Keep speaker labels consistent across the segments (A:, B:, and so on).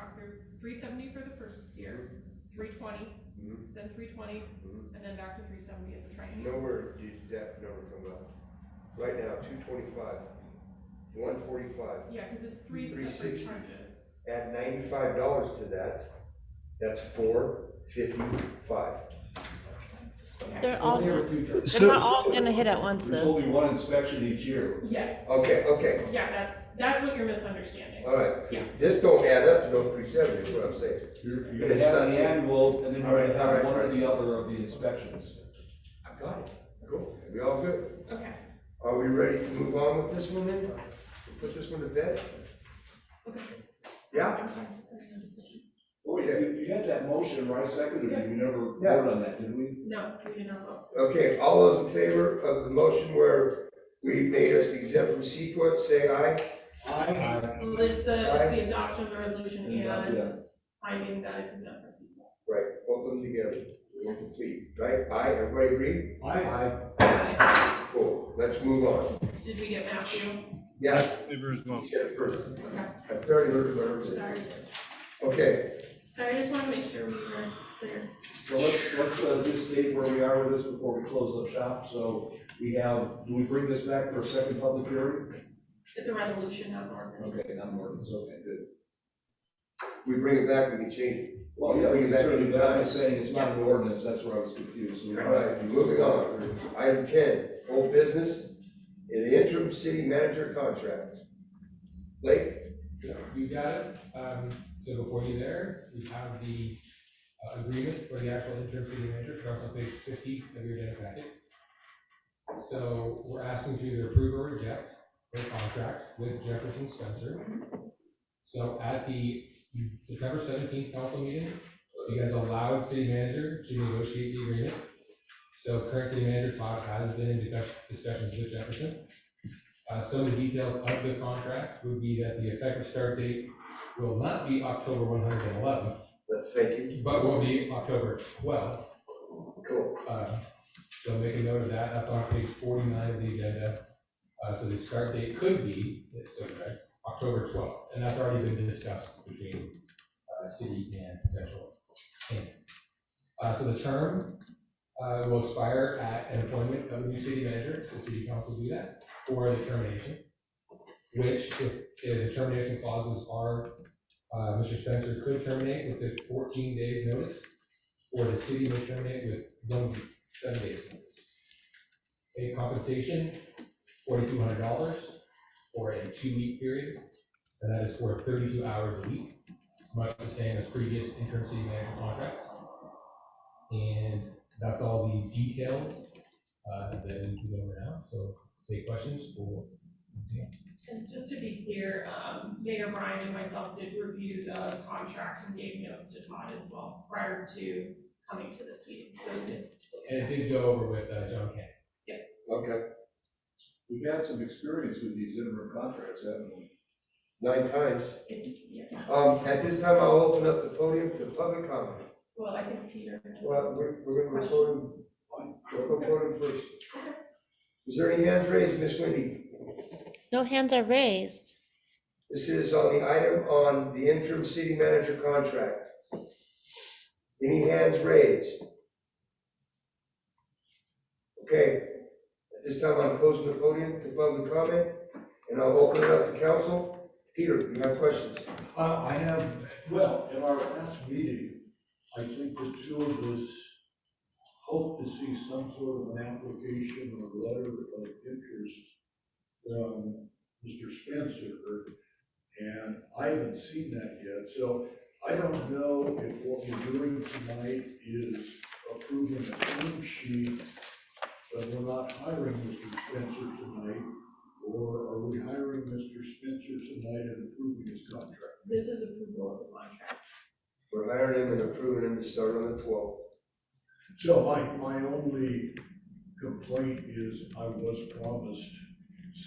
A: for, three seventy for the first year, three twenty,
B: Mhm.
A: then three twenty,
B: Mhm.
A: and then back to three seventy at the train.
B: Nowhere did that number come up. Right now, two twenty-five, one forty-five,
A: Yeah, cause it's three
B: Three
A: separate
B: sixty.
A: charges.
B: add ninety-five dollars to that, that's four fifty-five.
A: Okay.
C: They're all,
D: Near future.
C: they're not all gonna hit at once
D: There's
C: though.
D: only one inspection each year.
A: Yes,
B: Okay, okay,
A: yeah, that's, that's what you're misunderstanding.
B: all
A: Yeah.
B: right. This don't add up to no three seventy, is what I'm saying.
D: You're, you're gonna have the annual, and then
B: All
D: you're
B: right,
D: gonna
B: all right,
D: have one
B: all
D: or
B: right.
D: the other of the inspections.
B: I got it. Cool. We all good?
A: Okay,
B: Are we ready to move on with this one then? We'll Put this one to bed?
A: okay.
B: Yeah?
D: Oh, yeah, you, you had that motion, right, seconded, you never
B: Yeah.
D: voted on that, did we?
A: No, we did not vote.
B: Okay, all those in favor of the motion where we made us exempt from CEQA, say aye.
A: Well, it's the, it's the adoption of the resolution
D: Yeah.
A: and finding that it's exempt from sequel.
B: Right, both of them together, we're complete, right? Aye, everybody agree?
D: Aye.
A: Okay.
B: Cool, let's move on.
A: Did we get Matthew?
B: Yeah,
E: Favor as well.
B: he said it first.
A: Okay,
B: I barely heard what I was saying.
A: sorry.
B: Okay,
A: Sorry, I just wanna make sure we were clear.
D: So let's, let's, uh, just state where we are with this before we close up shop, so we have, do we bring this back for a second public hearing?
A: It's a resolution, not an ordinance.
D: Okay, not more, it's okay, good.
B: we bring it back, we can change it.
D: Well, yeah, we can certainly, but I'm
B: Back.
D: just saying it's not an ordinance, that's where I was confused, so. we-
B: All right, moving on. Item ten, old business, in the interim city manager contract. Blake,
F: You got it, um, so before you there, we have the uh, agreement for the actual interim city manager, so that's on page fifty of your agenda packet. So we're asking to either approve or reject the contract with Jefferson Spencer. So at the September seventeenth council meeting, you guys allowed city manager to negotiate the agreement. So current city manager Todd has been in discuss- discussions with Jefferson. Uh, some of the details of the contract would be that the effective start date will not be October one hundred and eleventh,
B: let's thank you.
F: but will be October twelfth.
B: Cool.
F: Uh, so make a note of that, that's on page forty-nine of the agenda. Uh, so the start date could be, so, correct, October twelfth, and that's already been discussed between, uh, city and potential tenant. Uh, so the term, uh, will expire at an appointment of a new city manager, so city council do that, or the termination. Which, if, if the termination clauses are, uh, Mr. Spencer could terminate within fourteen days notice, or the city may terminate with one week, seven days notice. A compensation, forty-two hundred dollars for a two-week period, and that is for thirty-two hours a week, much the same as previous interim city manager contracts. And that's all the details, uh, that we can go over now, so take questions or
A: And just to be clear, um, Mayor Brian and myself did review the contract and gave notes to Todd as well prior to coming to this meeting, so we did
F: And it did go over with uh, John Kennedy.
B: Okay,
D: We've had some experience with these interim contracts, haven't we?
B: nine times.
A: It's, yeah,
B: Um, at this time, I'll open up the podium to public comment.
A: well, I think Peter. has-
B: Well, we're, we're gonna go voting, we'll go voting first. Is there any hands raised, Miss Wendy?
C: No hands are raised.
B: This is on the item on the interim city manager contract. Any hands raised? Okay, at this time, I'm closing the podium to public comment, and I'll open it up to council. Peter, you have questions?
G: Uh, I have, well, in our last meeting, I think the two of us hope to see some sort of an application or letter of interest from Mr. Spencer, and I haven't seen that yet, so I don't know if what we're doing tonight is approving a term sheet, but we're not hiring Mr. Spencer tonight, or are we hiring Mr. Spencer tonight and approving his contract?
A: This is approval of the contract.
B: We're hiring him and approving him to start on the twelfth.
G: So my, my only complaint is I was promised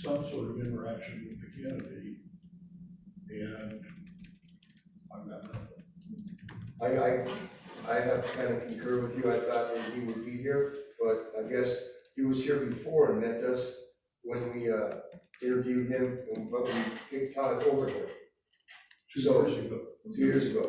G: some sort of interaction with the candidate, and I've got nothing.
B: I, I, I have to kind of concur with you, I thought that he would be here, but I guess he was here before and met us when we, uh, interviewed him, but we kicked Todd over him
G: Two years ago.
B: two years ago.